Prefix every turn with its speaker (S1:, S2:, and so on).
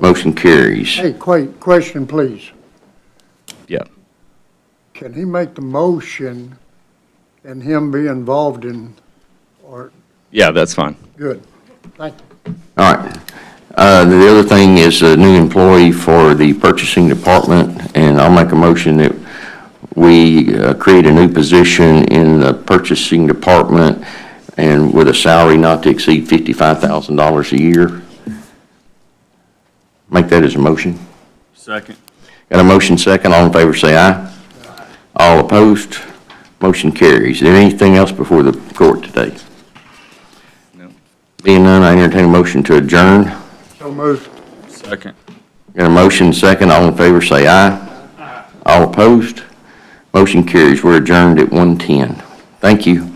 S1: Motion carries.
S2: Hey, que- question, please.
S3: Yeah.
S2: Can he make the motion and him be involved in, or,
S3: Yeah, that's fine.
S2: good. Thank you.
S1: All right. Uh, The other thing is a new employee for the purchasing department, and I'll make a motion that we uh, create a new position in the purchasing department and with a salary not to exceed $55,000 a year. Make that as a motion.
S4: Second.
S1: Got a motion second, all in favor say aye. All opposed, motion carries. Is there anything else before the court today?
S3: No.
S1: Being none, I entertain a motion to adjourn.
S2: So moved.
S4: Second.
S1: Got a motion second, all in favor say aye. All opposed, motion carries. We're adjourned at 1:10. Thank you.